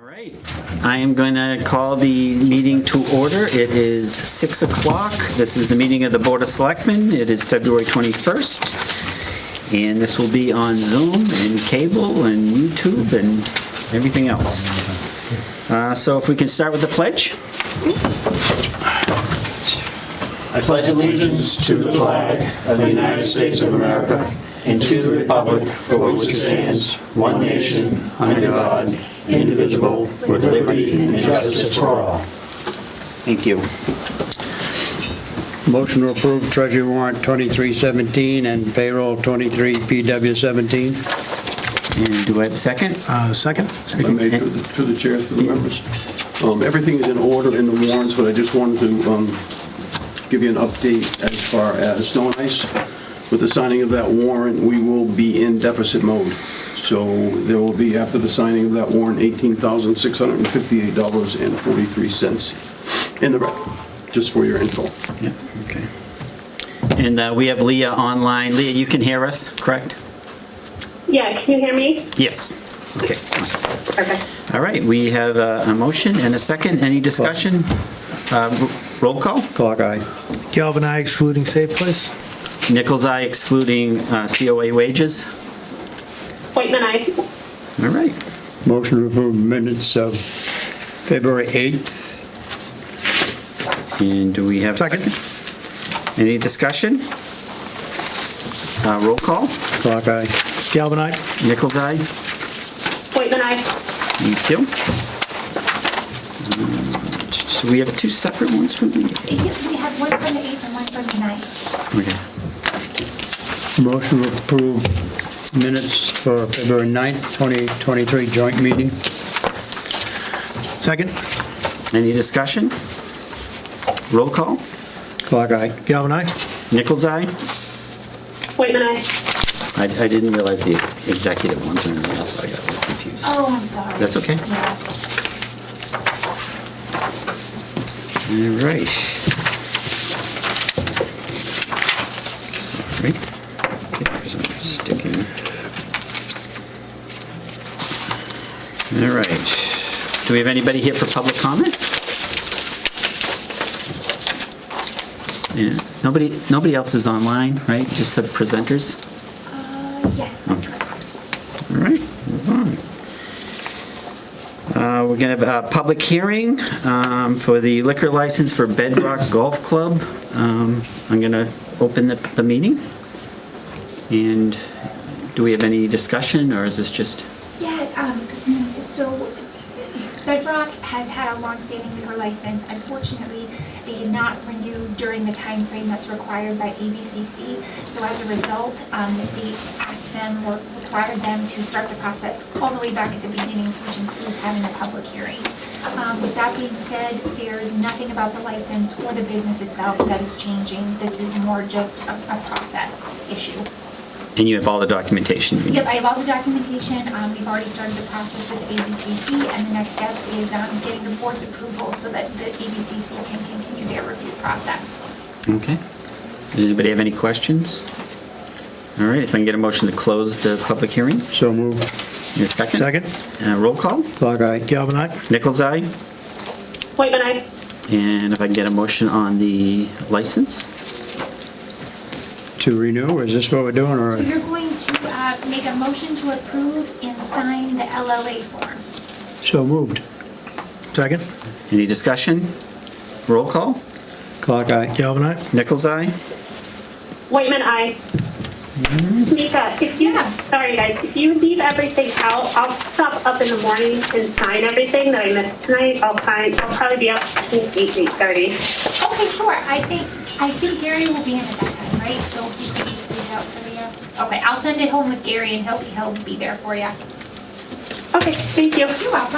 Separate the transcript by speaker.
Speaker 1: right, I am going to call the meeting to order. It is 6 o'clock. This is the meeting of the Board of Selectmen. It is February 21st, and this will be on Zoom and cable and YouTube and everything else. Uh, So if we can start with the pledge?
Speaker 2: I pledge allegiance to the flag of the United States of America and to the republic for which it stands, one nation, under God, indivisible, with liberty and justice for all.
Speaker 1: Thank you.
Speaker 3: Motion to approve treasury warrant 2317 and payroll 23PW17.
Speaker 1: And do I have a second?
Speaker 3: Second.
Speaker 4: If I may, through the- through the chairs for the members. Um, Everything is in order in the warrants, but I just wanted to um, give you an update as far as snow and ice. With the signing of that warrant, we will be in deficit mode. So there will be, after the signing of that warrant, $18,658.43 in the red, just for your info.
Speaker 1: Yeah, okay. And uh, we have Leah online. Leah, you can hear us, correct?
Speaker 5: Yeah, can you hear me?
Speaker 1: Yes. Okay, awesome.
Speaker 5: Okay.
Speaker 1: All right, we have a a motion and a second. Any discussion? Uh, r- Roll call?
Speaker 3: Clock eye.
Speaker 6: Galvin I excluding safe place.
Speaker 1: Nichols, I excluding uh, COA wages.
Speaker 5: Whiteman, I.
Speaker 1: All right.
Speaker 3: Motion to approve minutes of February 8th.
Speaker 1: And do we have? a
Speaker 6: Second.
Speaker 1: Any discussion? Uh, Roll call?
Speaker 3: Clock eye.
Speaker 6: Galvin I.
Speaker 1: Nichols, I.
Speaker 5: Whiteman, I.
Speaker 1: Thank you. Um, So we have two separate ones from the...
Speaker 7: We have one from the 8th and one from the 9th.
Speaker 1: Okay.
Speaker 3: Motion to approve minutes for February 9th, 2023 joint meeting.
Speaker 6: Second.
Speaker 1: Any discussion? Roll call?
Speaker 3: Clock eye.
Speaker 6: Galvin I.
Speaker 1: Nichols, I.
Speaker 5: Whiteman, I.
Speaker 1: I I didn't realize the executive ones, and that's why I got a little confused.
Speaker 7: Oh, I'm sorry.
Speaker 1: That's okay.
Speaker 7: Yeah.
Speaker 1: All right. Sorry. Papers are sticking. All right. Do we have anybody here for public comment? Yeah, nobody, nobody else is online, right? Just the presenters?
Speaker 7: Uh, Yes, that's correct.
Speaker 1: All right, move on. Uh, We're going to have a public hearing um, for the liquor license for Bedrock Golf Club. Um, I'm going to open the, the meeting. And do we have any discussion, or is this just,
Speaker 7: Yeah, um, so Bedrock has had a longstanding liquor license. Unfortunately, they did not renew during the time frame that's required by ABCC. So as a result, um, the state asked them or required them to start the process all the way back at the beginning, which includes having a public hearing. Um, with that being said, there is nothing about the license or the business itself that is changing. This is more just a, a process issue.
Speaker 1: and you have all the documentation? you need?
Speaker 7: Yep, I have all the documentation. Um, we've already started the process with ABCC, and the next step is, um, getting the board's approval so that the ABCC can continue their review process.
Speaker 1: Okay. Does anybody have any questions? All right, if I can get a motion to close the public hearing
Speaker 3: So moved.
Speaker 1: in a second?
Speaker 6: Second.
Speaker 1: Uh, Roll call?
Speaker 3: Clock eye.
Speaker 6: Galvin I.
Speaker 1: Nichols, aye?
Speaker 5: Whiteman, I.
Speaker 1: And if I can get a motion on the license?
Speaker 3: To renew, is this what we're doing, or?
Speaker 7: So you're going to, uh, make a motion to approve and sign the LLA form.
Speaker 3: So moved.
Speaker 6: Second.
Speaker 1: Any discussion? Roll call?
Speaker 3: Clock eye.
Speaker 6: Galvin I.
Speaker 1: Nichols, aye?
Speaker 5: Whiteman, I. Mika, if you,
Speaker 7: Yeah.
Speaker 5: sorry guys, if you leave everything out, I'll stop up in the morning and sign everything that I missed tonight. I'll sign, I'll probably be up between eight, eight thirty.
Speaker 7: Okay, sure. I think, I think Gary will be in at that time, right? So he can just leave it out for you. Okay, I'll send it home with Gary, and he'll, he'll be there for you.
Speaker 5: Okay, thank you.
Speaker 7: You're welcome.